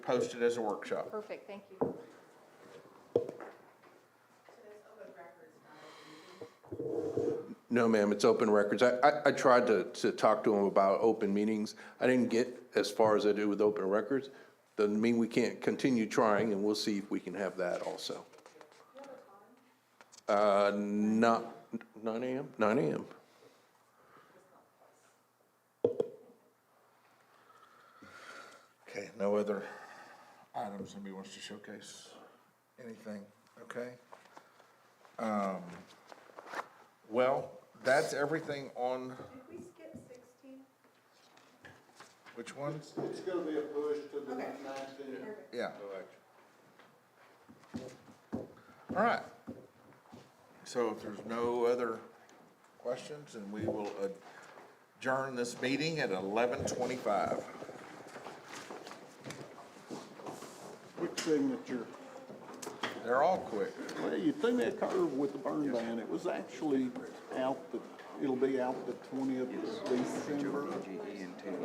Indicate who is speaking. Speaker 1: post it as a workshop.
Speaker 2: Perfect, thank you.
Speaker 1: No, ma'am, it's open records. I, I, I tried to, to talk to him about open meetings. I didn't get as far as I do with open records. Doesn't mean we can't continue trying, and we'll see if we can have that also. Uh, not, nine AM, nine AM.
Speaker 3: Okay, no other items anybody wants to showcase? Anything, okay? Um, Well, that's everything on,
Speaker 4: Did we skip sixteen?
Speaker 3: which ones?
Speaker 5: It's gonna be a push to the nineteenth.
Speaker 3: Yeah. All right. So if there's no other questions, and we will adjourn this meeting at eleven twenty-five.
Speaker 5: Quick signature.
Speaker 3: They're all quick.
Speaker 5: Well, you threw me a curve with the burn ban. It was actually out the, it'll be out the twentieth of December.